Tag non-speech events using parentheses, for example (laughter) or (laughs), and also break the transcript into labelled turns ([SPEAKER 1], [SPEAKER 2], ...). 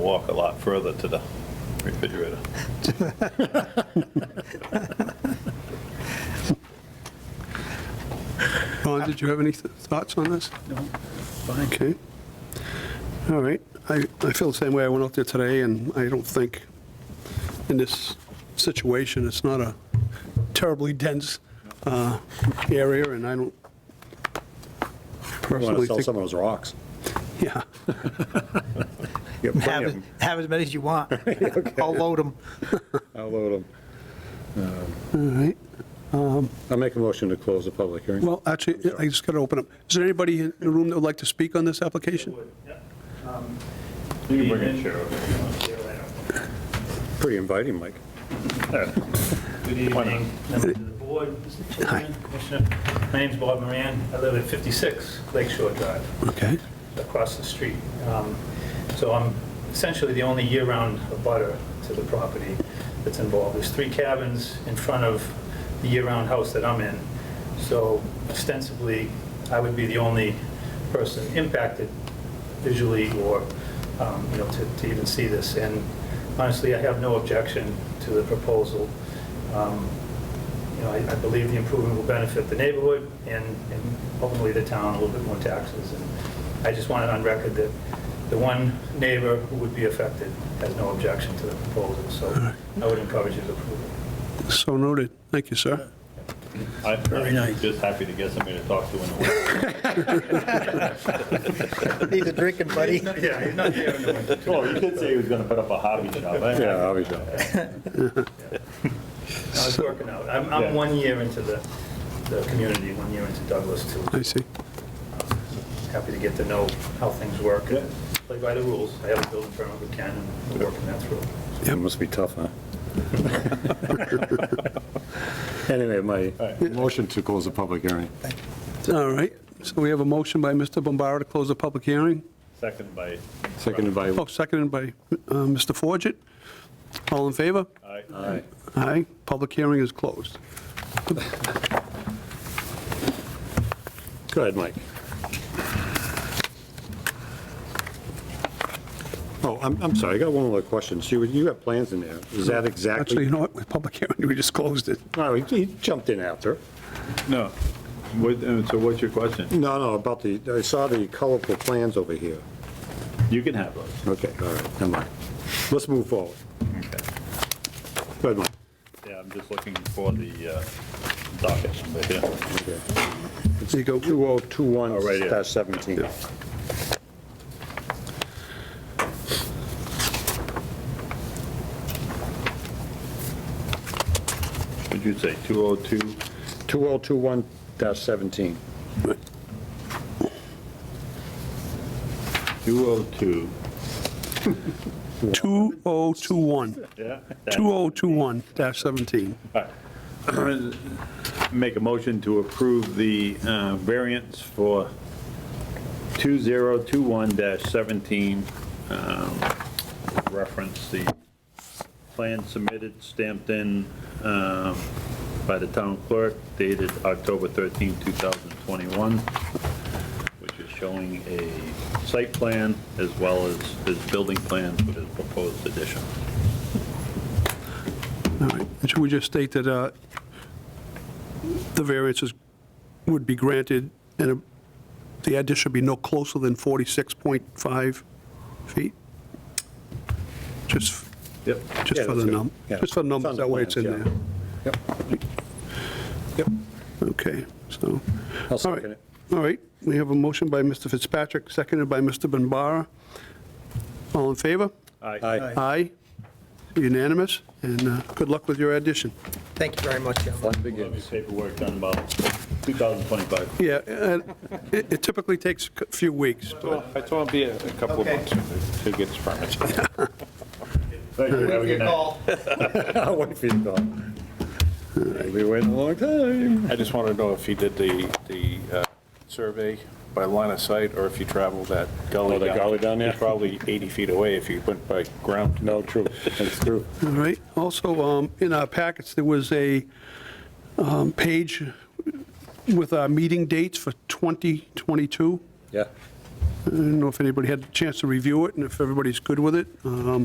[SPEAKER 1] walk a lot further to the refrigerator.
[SPEAKER 2] Ron, did you have any th- thoughts on this? No, Okay. All right, I, I feel the same way. I went out there today, and I don't think, in this situation, it's not a terribly dense uh, area, and I don't
[SPEAKER 3] You want
[SPEAKER 2] personally
[SPEAKER 3] to sell
[SPEAKER 2] think...
[SPEAKER 3] some of those rocks.
[SPEAKER 2] Yeah,
[SPEAKER 3] You got plenty
[SPEAKER 4] Have,
[SPEAKER 3] of
[SPEAKER 4] as-
[SPEAKER 3] 'em.
[SPEAKER 4] have as many as you want. I'll load them.
[SPEAKER 3] I'll load 'em.
[SPEAKER 2] all right. Um,
[SPEAKER 3] I'll make a motion to close the public hearing.
[SPEAKER 2] Well, actually, I just got to open up. Is there anybody in the room that would like to speak on this application?
[SPEAKER 5] Um,
[SPEAKER 1] You can bring a chair over.
[SPEAKER 3] Pretty
[SPEAKER 2] (laughs)
[SPEAKER 3] inviting, Mike.
[SPEAKER 5] Good evening, members of the board, Mr. Chairman, Commissioner. My name's Bob Moran. I live at 56 Lakeshore Drive,
[SPEAKER 2] Okay,
[SPEAKER 5] across the street. Um, So I'm essentially the only year-round abutter to the property that's involved. There's three cabins in front of the year-round house that I'm in. So ostensibly, I would be the only person impacted visually or, um, you know, to to even see this. And honestly, I have no objection to the proposal. Um, you know, I I believe the improvement will benefit the neighborhood and and ultimately the town, a little bit more taxes. And I just want it on record that the one neighbor who would be affected has no objection to the proposal, so I would encourage you to approve it.
[SPEAKER 2] so noted. Thank you, sir.
[SPEAKER 1] Very nice. Just happy to get somebody to talk to in the winter.
[SPEAKER 4] Need a drinking buddy.
[SPEAKER 5] Yeah, he's not here in the (laughs)
[SPEAKER 1] (laughs)
[SPEAKER 5] winter.
[SPEAKER 1] Well, Oh, you did say he was going to put up a hobby shop. I-
[SPEAKER 3] Yeah, obviously.
[SPEAKER 5] I was working out. I'm I'm one year into the the community, one year into Douglas, too.
[SPEAKER 2] I see.
[SPEAKER 5] Happy to get to know how things work
[SPEAKER 1] Yeah.
[SPEAKER 5] and play by the rules. I have a building permit with Ken, and we're working that through.
[SPEAKER 3] It must be tough, huh? Anyway, my motion to close the public hearing.
[SPEAKER 2] All right, so we have a motion by Mr. Bombara to close the public hearing.
[SPEAKER 1] Second by,
[SPEAKER 3] Seconded by,
[SPEAKER 2] Oh, seconded by uh, Mr. Forget. All in favor?
[SPEAKER 1] I-
[SPEAKER 3] aye.
[SPEAKER 2] Aye. Public hearing is closed.
[SPEAKER 3] Go ahead, Mike. Oh, I'm, I'm sorry, I got one more question. So you, you got plans in there. Is that
[SPEAKER 2] Actually,
[SPEAKER 3] exactly?
[SPEAKER 2] you know what, with public hearing, we just closed it.
[SPEAKER 3] No, he he jumped in after.
[SPEAKER 1] No. What- uh, So what's your question?
[SPEAKER 3] No, no, about the, I saw the colorful plans over here.
[SPEAKER 1] You can have those.
[SPEAKER 3] Okay, all right, never mind. Let's move forward.
[SPEAKER 1] Okay.
[SPEAKER 3] Go ahead, Mike.
[SPEAKER 1] Yeah, I'm just looking for the uh, docket number here.
[SPEAKER 3] Okay.
[SPEAKER 2] There you go.
[SPEAKER 3] 2021
[SPEAKER 1] Oh, right here.
[SPEAKER 3] dash 17.
[SPEAKER 1] What'd you say, 202?
[SPEAKER 3] 2021 dash 17.
[SPEAKER 1] 202.
[SPEAKER 2] 2021,
[SPEAKER 1] Yeah.
[SPEAKER 2] 2021-17.
[SPEAKER 1] (clears throat) Make a motion to approve the uh, variance for 2021-17, um, reference the plan submitted, stamped in um, by the town clerk, dated October 13, 2021, which is showing a site plan as well as his building plans for his proposed addition.
[SPEAKER 2] All right, and should we just state that uh, the variances would be granted, and a- the addition should be no closer than 46.5 feet? Just,
[SPEAKER 1] Yep.
[SPEAKER 2] just
[SPEAKER 3] Yeah,
[SPEAKER 2] for
[SPEAKER 3] that's
[SPEAKER 2] the
[SPEAKER 3] good.
[SPEAKER 2] num,
[SPEAKER 3] Yeah.
[SPEAKER 2] just for the
[SPEAKER 3] It's on
[SPEAKER 2] numbers,
[SPEAKER 3] the
[SPEAKER 2] that way it's in
[SPEAKER 3] plans,
[SPEAKER 2] there.
[SPEAKER 3] yeah. Yep.
[SPEAKER 2] Okay, so,
[SPEAKER 3] I'll
[SPEAKER 2] all
[SPEAKER 3] second
[SPEAKER 2] right,
[SPEAKER 3] it.
[SPEAKER 2] all right, we have a motion by Mr. Fitzpatrick, seconded by Mr. Bombara. All in favor?
[SPEAKER 3] Aye.
[SPEAKER 2] Aye, unanimous, and uh, good luck with your addition.
[SPEAKER 4] Thank you very much, gentlemen.
[SPEAKER 3] Fun
[SPEAKER 1] We'll have your
[SPEAKER 3] begins.
[SPEAKER 1] paperwork done about 2025.
[SPEAKER 2] Yeah, and it it typically takes a few weeks, but
[SPEAKER 6] Well, I told him it'd be a couple of
[SPEAKER 4] Okay.
[SPEAKER 6] months to get his permit.
[SPEAKER 1] Thank you, have a good night.
[SPEAKER 3] (laughs) I'll wait for you to go. We've been waiting a long time.
[SPEAKER 6] I just wanted to know if he did the, the uh, survey by line of sight, or if he traveled that gully.
[SPEAKER 3] Oh, the
[SPEAKER 6] down.
[SPEAKER 3] gully down there?
[SPEAKER 6] It's Probably 80 feet away if he went by ground.
[SPEAKER 3] No, true, that's true.
[SPEAKER 2] All right. Also, um, in our packets, there was a um, page with our meeting dates for 2022.
[SPEAKER 3] Yeah.
[SPEAKER 2] I don't know if anybody had a chance to review it and if everybody's good with it. Um,